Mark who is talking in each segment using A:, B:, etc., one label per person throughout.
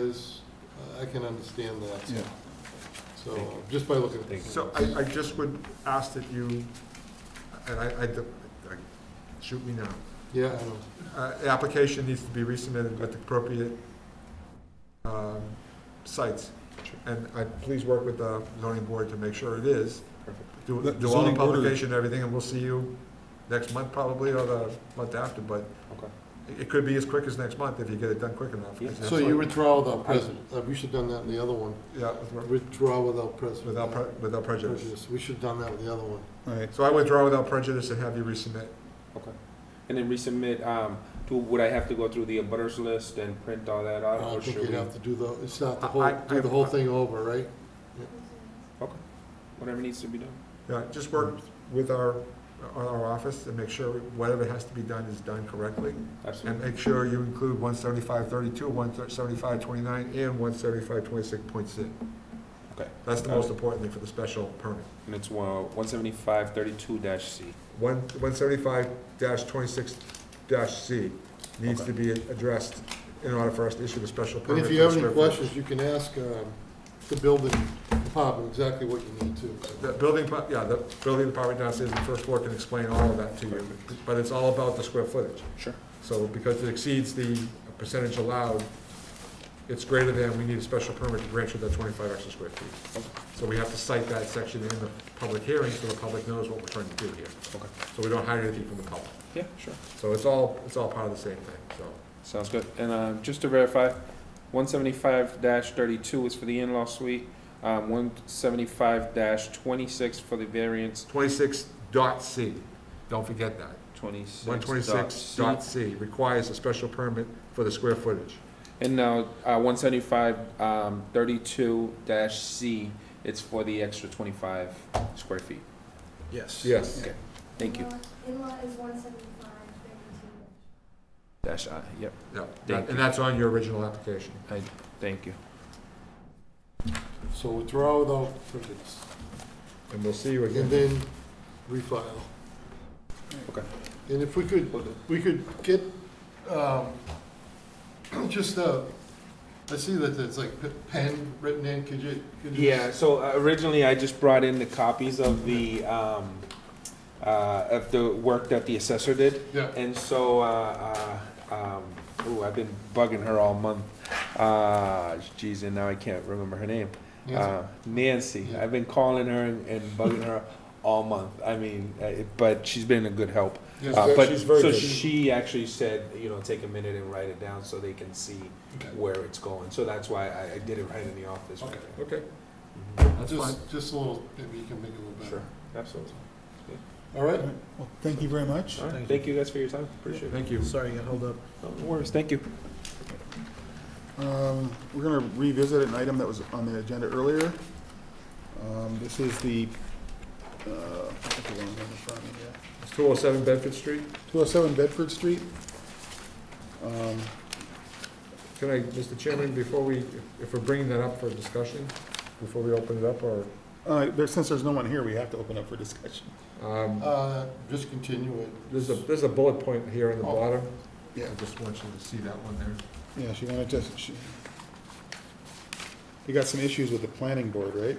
A: uh, I can understand that, so-
B: Yeah.
A: so, uh, just by looking. at
C: So I, I just would ask that you, and I, I, I- shoot me now.
A: Yeah, I know.
C: Uh, the application needs to be resubmitted with appropriate, um, sites. And I, please work with the zoning board to make sure it is. Do,
B: The- the
C: do all the
B: zoning board-
C: publication and everything, and we'll see you next month probably, or the month after, but it- it could be as quick as next month if you get it done quick enough. 'cause
A: So
C: that's
A: you
C: what-
A: withdraw without prejudice, Uh, we should done that in the other one,
C: Yeah, with-
A: withdraw without prejudice.
C: without, pre- without prejudice.
A: We should have done that with the other one.
B: Right.
C: So I withdraw without prejudice and have you resubmit.
D: Okay. And then resubmit, um, to, would I have to go through the abutters list and print all that
A: Uh, I
D: out? or
A: don't think
D: should
A: you'd
D: we-
A: have to do the, it's not the
C: I-
A: whole,
C: I-
A: do the whole thing over, right?
D: Whatever needs to be done.
C: Yeah, just work with our, our office and make sure whatever has to be done is done correctly. And
D: Absolutely.
C: make sure you include one seventy-five thirty-two, one seventy-five twenty-nine, and one seventy-five twenty-six point six.
D: Okay.
C: That's the most important thing for the special permit.
D: And it's one, one seventy-five thirty-two dash C.
C: One, one seventy-five dash twenty-six dash C needs to be addressed in order for us to issue the special
A: And
C: permit.
A: if
C: for
A: you
C: the
A: have any
C: square footage.
A: questions, you can ask um, the building department exactly what you need to.
C: The building, pa- yeah, the building department downstairs, on the first floor can explain all of that to you, but it's all about the square footage.
D: Sure.
C: So because it exceeds the percentage allowed, it's greater than, we need a special permit to grant you that twenty-five extra square feet.
D: Okay.
C: So we have to cite that section in the public hearing, so the public knows what we're trying to do here.
D: Okay.
C: So we don't hide anything from the public.
D: Yeah, sure.
C: So it's all, it's all part of the same thing, so.
D: Sounds good. And, uh, just to verify, one seventy-five dash thirty-two is for the in-law suite. Um, one seventy-five dash twenty-six for the variance,
C: Twenty-six dot C, don't forget that.
D: twenty-six
C: One twenty-six
D: dot C.
C: dot C requires a special permit for the square footage.
D: And now, uh, one seventy-five, um, thirty-two dash C, it's for the extra twenty-five square feet.
E: Yes.
C: Yes.
D: Thank you.
F: In-law is one seventy-five, thirty-two.
D: Dash I, yep,
C: Yeah,
D: Thank
C: and that's on your original application.
D: thank you.
A: So withdraw without prejudice,
C: And we'll see you
A: and
C: again.
A: then refile.
D: Okay.
A: And if we could, we could get, um, just, uh, I see that it's like p- pen written in, could you? could you
D: Yeah, so uh, originally I just brought in the copies of the, um, uh, of the work that the assessor did.
A: Yeah.
D: And so, uh, uh, um, ooh, I've been bugging her all month. Uh, geez, and now I can't remember her name.
A: Nancy?
D: Uh, Nancy.
A: Yeah.
D: I've been calling her and, and bugging her all month. I mean, uh, it- but she's been a good help.
A: Yes,
D: Uh,
C: very-
D: but
C: she's very
D: so
C: good.
D: she actually said, you know, take a minute and write it down so they can see
A: Okay.
D: where it's going. So that's why I, I did it right in the office.
A: Okay.
C: Okay,
D: Mhm.
C: that's fine.
A: Just, just a little, maybe you can make it a little better.
D: Sure, absolutely.
A: All right?
B: Well, thank you very much.
D: All right,
E: Thank
D: thank you guys for your time. Appreciate it.
C: Thank you.
E: Sorry, I got held up.
D: No worries. Thank you.
B: Um, We're going to revisit an item that was on the agenda earlier. Um, This is the, uh, I think the one in front of me here.
C: It's 207 Bedford Street.
B: 207 Bedford Street. Um,
C: Can I, Mr. Chairman, before we, if we're bringing that up for discussion, before we open it up, or,
B: uh, there- Since there's no one here, we have to open up for discussion.
C: um,
A: Uh, just continue it.
C: there's a, there's a bullet point here in the
A: Oh.
C: bottom.
B: Yeah.
C: I just want you to see that one there.
B: Yeah, she wanted to, she, you got some issues with the planning board, right?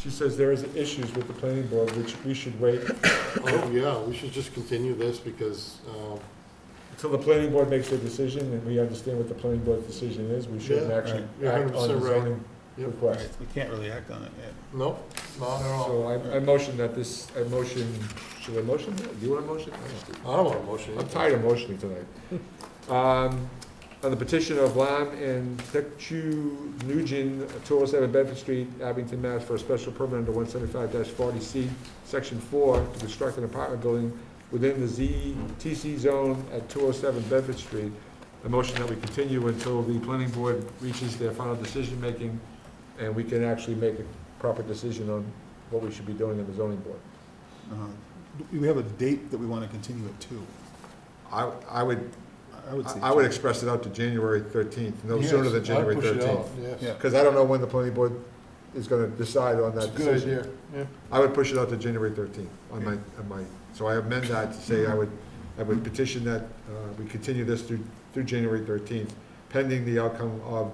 C: She says there is issues with the planning board, which we should wait
A: Oh, yeah, we should just continue this because, um,
C: until the planning board makes their decision, and we understand what the planning board's decision is. We shouldn't
A: Yeah.
C: actually
B: Right.
A: You're
C: act on
A: 100%
C: the
A: right.
C: zoning
A: Yep.
C: request.
B: We can't really act on it yet.
A: no, not at all.
C: So I, I motion that this, I motion, should I motion? that? Do you want to motion? I don't know.
A: I don't want a motion.
C: I'm tired of motioning tonight. Um, On the petition of Lam and Techu Nugent, 207 Bedford Street, Abington, Mass. for a special permit under 175-40C, Section 4, to construct an apartment building within the ZTC zone at 207 Bedford Street. A motion that we continue until the planning board reaches their final decision-making, and we can actually make a proper decision on what we should be doing in the zoning board.
B: Uh, We have a date that we want to continue it to.
C: I, I would
B: I- I would say.
C: I I would express it out to January 13th, no sooner than January 13th.
A: Yes,
B: Yeah.
C: Because I don't know when the planning board is going to decide on
A: it's a
C: that
A: good
C: decision.
A: idea, yeah.
C: I would push it out to January 13th on my, on my, so I amend that to say I would, I would petition that uh, we continue this through, through January 13th, pending the outcome of